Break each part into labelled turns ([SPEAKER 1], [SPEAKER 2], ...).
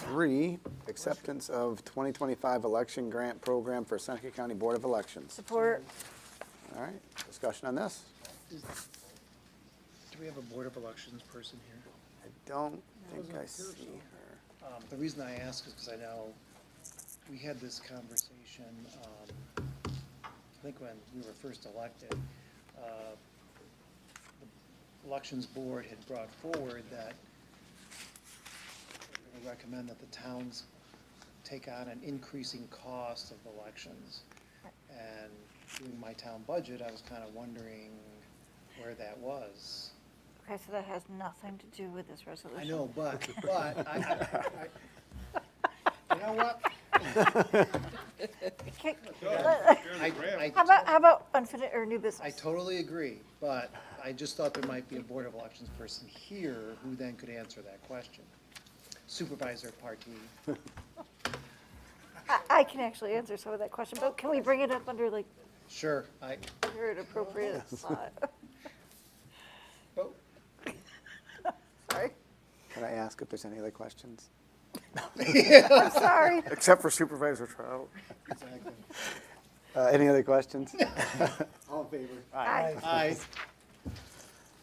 [SPEAKER 1] Three, acceptance of 2025 election grant program for Seneca County Board of Elections.
[SPEAKER 2] Support,
[SPEAKER 1] All right, discussion on this?
[SPEAKER 3] Do we have a Board of Elections person here?
[SPEAKER 1] I don't think I see her.
[SPEAKER 3] Um, The reason I ask is because I know we had this conversation, um, I think when we were first elected. uh, the Elections Board had brought forward that they recommend that the towns take on an increasing cost of elections. And doing my town budget, I was kind of wondering where that was.
[SPEAKER 2] okay, so that has nothing to do with this resolution.
[SPEAKER 3] I know, but, but, I, I, you know what?
[SPEAKER 2] Okay,
[SPEAKER 4] Fairly
[SPEAKER 3] I,
[SPEAKER 4] grand.
[SPEAKER 2] How
[SPEAKER 3] I,
[SPEAKER 2] about, how about unfinished or new business?
[SPEAKER 3] I totally agree, but I just thought there might be a Board of Elections person here who then could answer that question. Supervisor Partee,
[SPEAKER 2] I, I can actually answer some of that question, but can we bring it up under like,
[SPEAKER 3] sure, I,
[SPEAKER 2] under an appropriate slot?
[SPEAKER 3] oh,
[SPEAKER 2] Sorry,
[SPEAKER 1] Can I ask if there's any other questions?
[SPEAKER 2] I'm sorry.
[SPEAKER 1] Except for Supervisor Trout.
[SPEAKER 3] exactly.
[SPEAKER 1] Uh, Any other questions?
[SPEAKER 3] All in favor?
[SPEAKER 2] Aye.
[SPEAKER 3] Aye,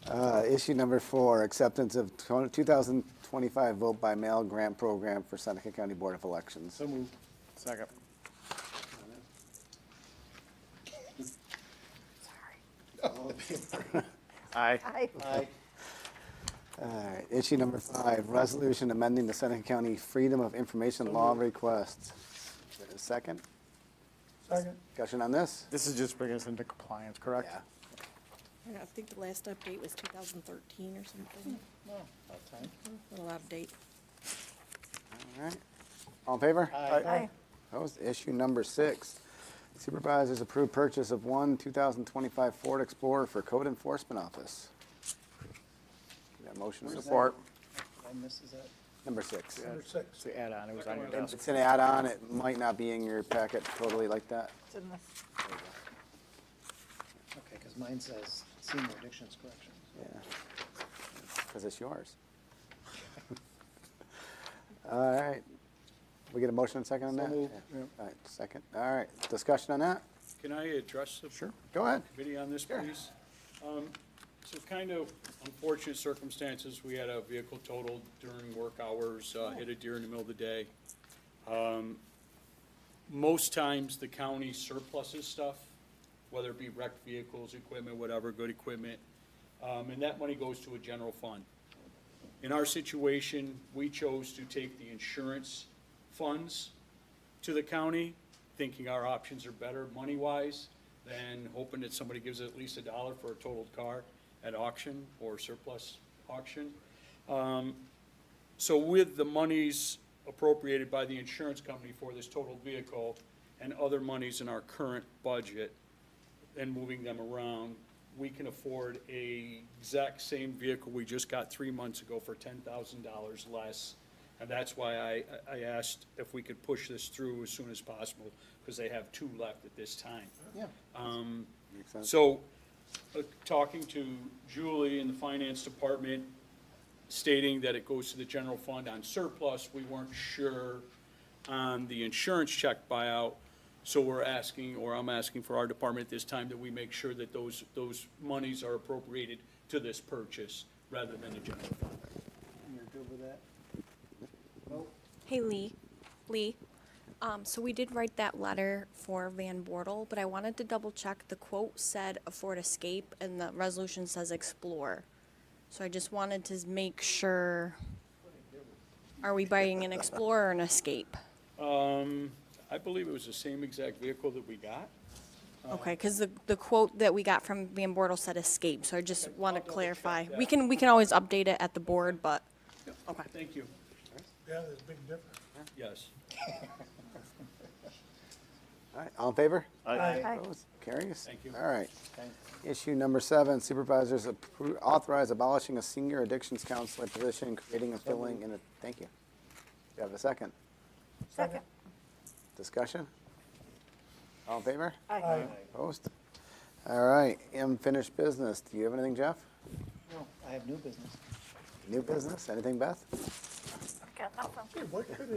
[SPEAKER 1] Uh, Issue number four, acceptance of 20- 2025 vote by mail grant program for Seneca County Board of Elections.
[SPEAKER 3] so moved.
[SPEAKER 1] Second.
[SPEAKER 3] All in favor?
[SPEAKER 1] Aye.
[SPEAKER 2] Aye.
[SPEAKER 3] Aye,
[SPEAKER 1] Alright, Issue number five, resolution amending the Seneca County Freedom of Information Law request. Is there a Second,
[SPEAKER 5] Second.
[SPEAKER 1] discussion on this?
[SPEAKER 5] This is just bringing us into compliance, correct?
[SPEAKER 1] Yeah.
[SPEAKER 6] I don't know, I think the last update was 2013 or something,
[SPEAKER 3] no, about time.
[SPEAKER 6] a little outdated.
[SPEAKER 1] Alright, all in favor?
[SPEAKER 3] Aye.
[SPEAKER 2] Aye.
[SPEAKER 1] Opposed? Issue number six, supervisors approved purchase of one 2025 Ford Explorer for code enforcement office. Is there a motion
[SPEAKER 3] Where's that?
[SPEAKER 1] support?
[SPEAKER 3] I misses that.
[SPEAKER 1] Number six.
[SPEAKER 5] Number six. It's the add-on, it was on your
[SPEAKER 1] And
[SPEAKER 5] desk.
[SPEAKER 1] It's an add-on, it might not be in your packet totally like that.
[SPEAKER 2] It's in this.
[SPEAKER 3] Okay, because mine says senior addictions corrections.
[SPEAKER 1] Yeah, because it's yours. All right, we get a motion and second on that?
[SPEAKER 3] moved,
[SPEAKER 1] Yeah. All right, second, all right, discussion on that?
[SPEAKER 4] Can I address the? Sure.
[SPEAKER 1] Go ahead.
[SPEAKER 4] Committee on this, please? Um, So kind of unfortunate circumstances, we had a vehicle totaled during work hours, uh, hit a deer in the middle of the day. Um, Most times, the county surpluses stuff, whether it be wrecked vehicles, equipment, whatever, good equipment, um, and that money goes to a general fund. In our situation, we chose to take the insurance funds to the county, thinking our options are better money-wise than hoping that somebody gives at least a dollar for a totaled car at auction or surplus auction. Um, So with the monies appropriated by the insurance company for this totaled vehicle and other monies in our current budget and moving them around, we can afford a exact same vehicle we just got three months ago for ten thousand dollars less. And that's why I, I asked if we could push this through as soon as possible, because they have two left at this time.
[SPEAKER 3] Yeah.
[SPEAKER 1] Makes sense.
[SPEAKER 4] So, uh, talking to Julie in the finance department, stating that it goes to the general fund on surplus, we weren't sure on the insurance check buyout. So we're asking, or I'm asking for our department at this time, that we make sure that those, those monies are appropriated to this purchase rather than the general fund.
[SPEAKER 3] You're good with that?
[SPEAKER 7] Hey, Lee. Lee, um, so we did write that letter for Van Bortle, but I wanted to double check. The quote said a Ford Escape and the resolution says Explore. So I just wanted to make sure, are we buying an Explorer or an Escape?
[SPEAKER 4] Um, I believe it was the same exact vehicle that we got.
[SPEAKER 7] Okay, because the, the quote that we got from Van Bortle said Escape, so I just want to clarify. We can, we can always update it at the board, but, okay.
[SPEAKER 4] Thank you.
[SPEAKER 5] Yeah, there's a big difference.
[SPEAKER 4] Yes.
[SPEAKER 1] All right, all in favor?
[SPEAKER 2] Aye.
[SPEAKER 1] Opposed? Carries?
[SPEAKER 4] Thank you.
[SPEAKER 1] All right. Issue number seven, supervisors appro- authorize abolishing a senior addictions counselor position, creating and filling in a, thank you. Do you have a second?
[SPEAKER 2] Second.
[SPEAKER 1] Discussion? All in favor?
[SPEAKER 2] Aye.
[SPEAKER 1] Opposed? All right, unfinished business. Do you have anything, Jeff?
[SPEAKER 3] No, I have new business.
[SPEAKER 1] New business? Anything, Beth?
[SPEAKER 2] Got
[SPEAKER 8] awesome.
[SPEAKER 2] Gee, what could